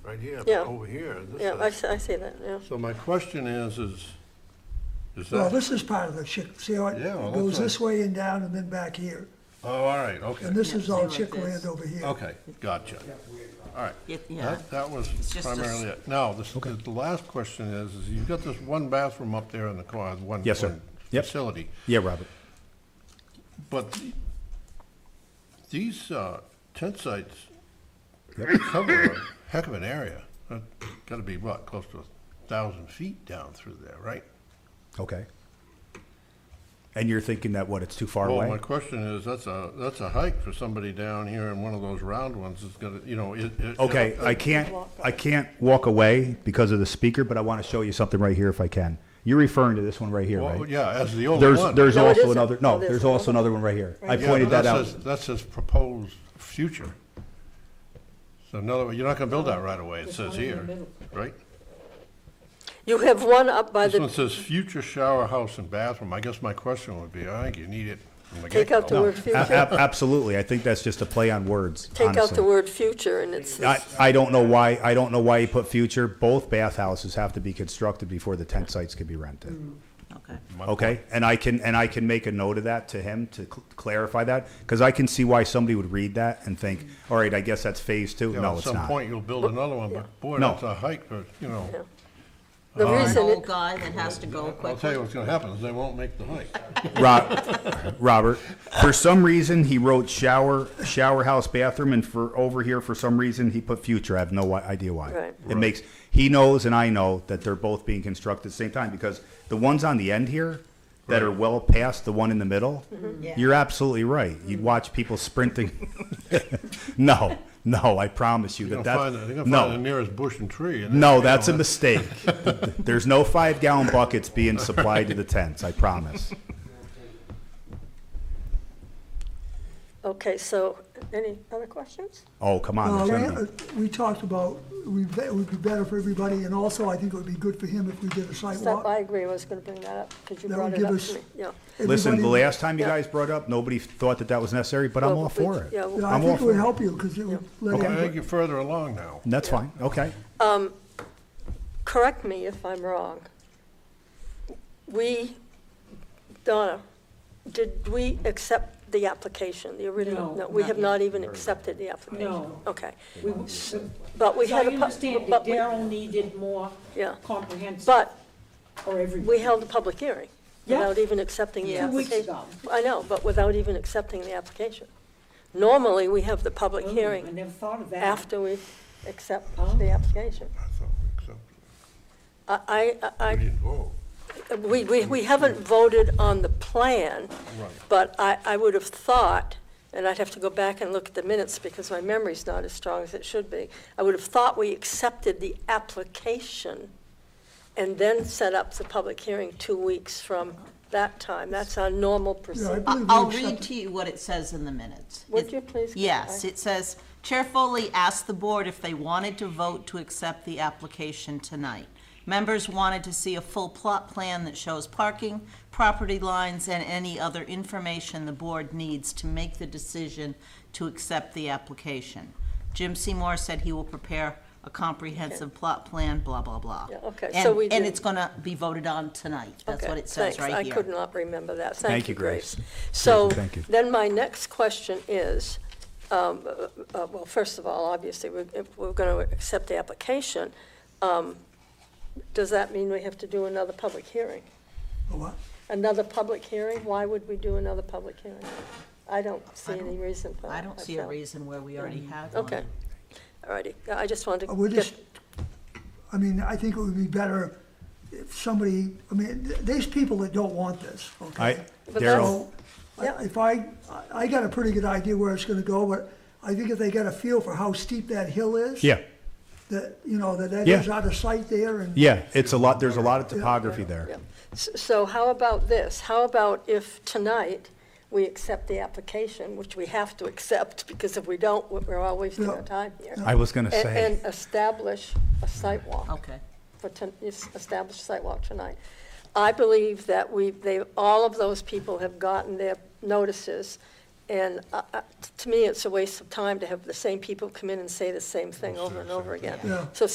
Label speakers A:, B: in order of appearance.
A: right here,
B: Yeah.
A: over here. this
B: Yeah, I
A: side.
B: see, I see that, yeah.
C: So my question is, is, is
D: Well,
C: that,
D: this is part of the chick, see how it
C: uh, Yeah, well, that's
D: goes
C: what-
D: this way and down and then back here?
C: oh, all right, okay,
D: And this is
E: Yeah,
D: all
E: see like
D: chick land
E: this.
D: over here.
C: okay, gotcha. All right.
E: It- Yeah,
C: That, that was
E: It's just a s-
C: primarily it. Now, this, the the last question is, is you've got this one bathroom up there in the corner, the one.
F: Yes, sir.
C: one
F: Yep.
C: Facility,
F: Yeah, Robert.
C: but the- these, uh, tent sites cover a heck of an area. That's Gotta be what, close to a thousand feet down through there, right?
F: Okay. And you're thinking that what? It's too far
C: Well,
F: away.
C: my question is, that's a, that's a hike for somebody down here in one of those round ones, it's gonna, you know, it. uh, it-
F: Okay, I can't, I can't walk away because of the speaker, but I want to show you something right here if I can. You're referring to this one right here,
C: Well,
F: right?
C: yeah, that's the only
F: There's,
C: one.
F: there's
B: No, it
F: also
B: isn't. Oh,
F: another, no,
B: It
F: there's
B: isn't.
F: also another one right here. I
C: Yeah,
F: pointed
C: but
F: that out.
C: says- That says proposed future. So in other words, you're not gonna build that right away, it says here, right?
B: You have one up by
C: This one
B: the,
C: says future shower house and bathroom. I guess my question would be, I think you need it from the
B: Take out the
C: get-go.
B: word
F: A-
B: future,
F: a- Absolutely. I think that's just a play on words,
B: take out the
F: honestly.
B: word future and it's,
F: I, I don't know why, I don't know why you put future. Both bathhouses have to be constructed before the tent sites can be rented.
E: okay.
F: Okay, and I can, and I can make a note of that to him to cl- clarify that, because I can see why somebody would read that and think, all right, I guess that's phase two.
C: You know,
F: No,
C: At
F: it's
C: some
F: not.
C: point, you'll build another one, but boy,
F: No.
C: that's a hike, but, you know.
B: the
E: An
B: reason,
E: old
B: it-
E: guy that has to go
C: I'll tell you
E: quickly.
C: what's gonna happen, is they won't make the hike.
F: Rob, Robert, for some reason, he wrote shower, shower house bathroom, and for, over here, for some reason, he put future. I have no why- idea why.
B: Right.
F: It makes, he knows and I know that they're both being constructed at the same time, because the ones on the end here that are well past the one in the middle,
E: Yeah.
F: you're absolutely right. You'd watch people sprinting. No, no, I promise you
C: They're
F: that
C: gonna find, the-
F: that's,
C: they're gonna find the
F: no,
C: nearest bush and tree. and
F: no,
C: then-
F: that's a mistake. There's no five gallon buckets being supplied to the tents, I promise.
B: okay, so, any other questions?
F: Oh, come on.
D: Well,
F: there's
D: we-
F: gonna be-
D: uh, we talked about, we, it would be better for everybody, and also I think it would be good for him if we did a site
B: Stop,
D: walk.
B: I agree, I was gonna bring that up, because you
D: That would
B: brought it
D: give
B: up
D: us-
B: to me, yeah.
F: Listen, the
D: Everybody-
F: last time you
B: Yeah.
F: guys brought up, nobody thought that that was necessary, but I'm
B: Well,
F: all
B: we-
F: for it.
B: yeah, we-
D: Yeah, I
F: I'm all
D: think it would
F: for it.
D: help you, because it would let
C: I think
D: everybody,
C: you're further along now.
F: That's fine, okay.
B: correct me if I'm wrong. We, Donna, did we accept the application, the original?
E: No,
B: We
E: not
B: have
E: yet.
B: not even accepted the application?
G: No.
B: Okay,
G: We- So
B: but we
G: I
B: had a. pub-
G: understand that
B: but we-
G: Daryl needed more
B: Yeah.
G: comprehensive
B: But
G: or
B: we
G: everything.
B: held a public hearing
G: Yeah.
B: without even accepting the
E: Yeah.
G: Two weeks
B: application.
G: ago.
B: I know, but without even accepting the application. Normally, we have the public
G: Oh, I
B: hearing
G: never thought of that.
B: after we accept
G: Oh.
B: the application.
C: I thought we accepted it.
B: I, I, I
C: We didn't vote.
B: We, we, we haven't voted on the plan, but I, I would have thought, and I'd have to go back and look at the minutes because my memory's not as strong as it should be. I would have thought we accepted the application and then set up the public hearing two weeks from that time. That's our normal procedure.
D: yeah, I believe we
E: I'll
D: accept
E: read
D: it.
E: to you what it says in the minutes.
B: Would
E: It-
B: you please?
E: Yes, it says, Chair Foley asked the board if they wanted to vote to accept the application tonight. Members wanted to see a full plot plan that shows parking, property lines, and any other information the board needs to make the decision to accept the application. Jim Seymour said he will prepare a comprehensive plot plan, blah, blah, blah.
B: Yeah, okay,
E: And-
B: so we
E: And
B: did-
E: it's gonna be voted on tonight. That's
B: Okay,
E: what it says
B: thanks.
E: right here.
B: I could not remember that. Thank
F: Thank
B: you,
F: you,
B: Grace.
F: Grace.
B: So
F: Thank you.
B: then my next question is, um, uh, uh, well, first of all, obviously, we're- if we're going to accept the application, um, does that mean we have to do another public hearing?
D: A what?
B: Another public hearing? Why would we do another public hearing? I don't see any reason for that.
E: I don't see a
B: feel.
E: reason where we already have one.
B: Okay, all righty. I just wanted to.
D: Uh, We're
B: get-
D: just, I mean, I think it would be better if somebody, I mean, th- there's people that don't want this,
F: I,
D: okay?
F: Daryl,
D: So, I- if I, I- I got a pretty good idea where it's gonna go, but I think if they get a feel for how steep that hill is.
F: yeah,
D: That, you know, that that
F: Yeah.
D: is out of sight there and.
F: yeah, it's a lot, there's a lot of topography
B: Yeah.
F: there.
B: S- So how about this? How about if tonight we accept the application, which we have to accept, because if we don't, we- we're all wasting our time here.
F: I was gonna
B: And-
F: say,
B: And establish a site walk,
E: Okay.
B: for ton- yes, establish a site walk tonight. I believe that we, they, all of those people have gotten their notices, And uh, uh, t- to me, it's a waste of time to have the same people come in and say the same thing over and over again.
D: Yeah.
B: So